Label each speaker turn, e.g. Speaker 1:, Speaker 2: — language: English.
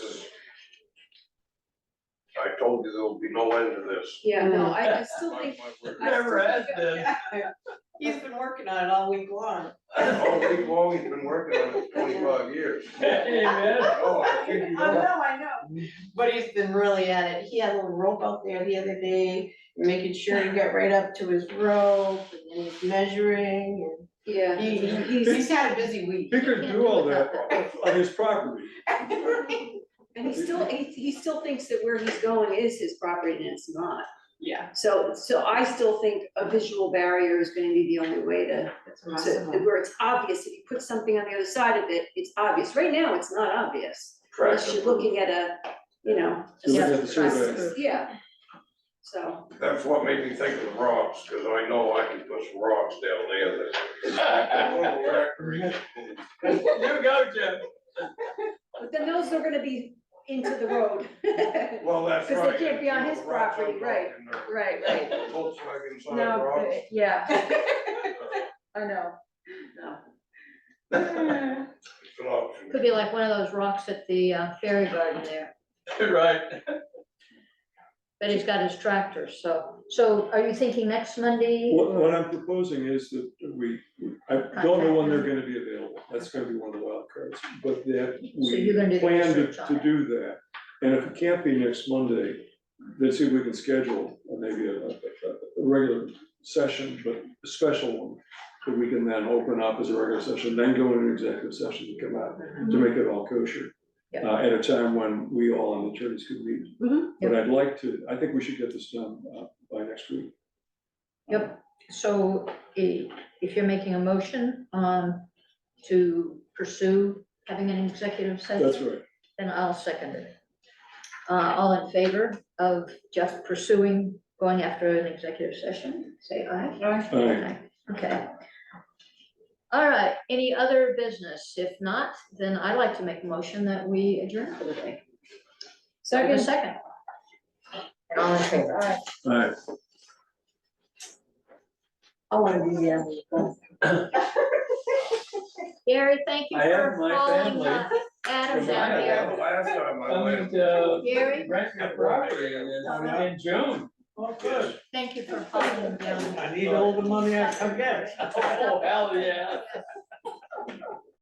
Speaker 1: road, there'll be no end to this.
Speaker 2: Yeah, no, I, I still
Speaker 1: Mark
Speaker 2: think.
Speaker 1: my word.
Speaker 2: I
Speaker 3: Never
Speaker 2: still
Speaker 3: has
Speaker 2: think-
Speaker 3: been.
Speaker 4: He's been working on it all week long.
Speaker 1: Oh, we've always been working on it for twenty-five years.
Speaker 3: Hey, man.
Speaker 1: Oh, I
Speaker 4: I
Speaker 1: kid you not.
Speaker 4: know, I know. But he's been really at it. He had a little rope out there the other day, making sure he got right up to his rope and then he's measuring
Speaker 2: Yeah.
Speaker 4: and he, he- he's had a busy week.
Speaker 5: He could do all that on his property.
Speaker 2: And he still, he, he still thinks that where he's going is his property and it's not.
Speaker 4: Yeah,
Speaker 2: So, so I still think a visual barrier is gonna be the only way to,
Speaker 4: that's
Speaker 2: to,
Speaker 4: awesome.
Speaker 2: where it's obvious, if you put something on the other side of it, it's obvious. Right now, it's not obvious. Unless you're looking at a, you know. a
Speaker 5: You're looking at the
Speaker 2: separate
Speaker 5: survey.
Speaker 2: process. Yeah. So,
Speaker 1: That's what made me think of rocks, cause I know I can put some rocks down there that. Won't work.
Speaker 3: You go, Jim.
Speaker 2: but then those are gonna be into the road. Right,
Speaker 1: Well, that's right.
Speaker 2: Because they can't be on his
Speaker 1: The rocks I'm
Speaker 2: property, right.
Speaker 1: talking about.
Speaker 2: right.
Speaker 1: Volkswagen side
Speaker 2: No,
Speaker 1: rocks.
Speaker 2: yeah,
Speaker 4: It's
Speaker 2: I know. No.
Speaker 1: It's an option.
Speaker 6: Could be like one of those rocks at the uh, ferry garden there,
Speaker 3: Right.
Speaker 6: but he's got his tractor, so, so are you thinking next Monday?
Speaker 5: What, what I'm proposing is that we, I don't know when they're gonna be available, that's gonna be one of the wild cards, but that
Speaker 6: So you're
Speaker 5: we
Speaker 6: gonna do the
Speaker 5: plan to,
Speaker 6: research on
Speaker 5: to
Speaker 6: it.
Speaker 5: do that. And if it can't be next Monday, then see if we can schedule uh, maybe a, a, a regular session, but a special one. That we can then open up as a regular session, then go into executive session and come out to make it all kosher.
Speaker 6: Mm-hmm. Yeah. Mm-hmm.
Speaker 5: Uh, at a time when we all on the attorneys could meet.
Speaker 2: Mhm.
Speaker 5: But I'd like to, I think we should get this done, uh, by next week.
Speaker 6: Yep. So i- if you're making a motion, um, to pursue having an executive session.
Speaker 5: That's right.
Speaker 6: Then I'll second it. Uh, all in favor of just pursuing, going after an executive session, say aye.
Speaker 5: All right.
Speaker 6: Okay. All right, any other business? If not, then I'd like to make a motion that we adjourn for the day. Second. Second. And all in favor?
Speaker 5: All right.
Speaker 4: I wanna be uh, there.
Speaker 6: Gary, thank you
Speaker 3: I have
Speaker 6: for
Speaker 3: my
Speaker 6: calling
Speaker 3: family.
Speaker 6: uh, Adam
Speaker 3: Yeah,
Speaker 6: down
Speaker 3: yeah.
Speaker 6: here.
Speaker 1: The last time I
Speaker 3: I'm
Speaker 1: went.
Speaker 3: gonna
Speaker 6: Gary,
Speaker 3: uh, rent my property in, in June. Oh,
Speaker 1: good.
Speaker 6: thank you for calling down.
Speaker 3: I need all the money I can get. Oh, hell, yeah.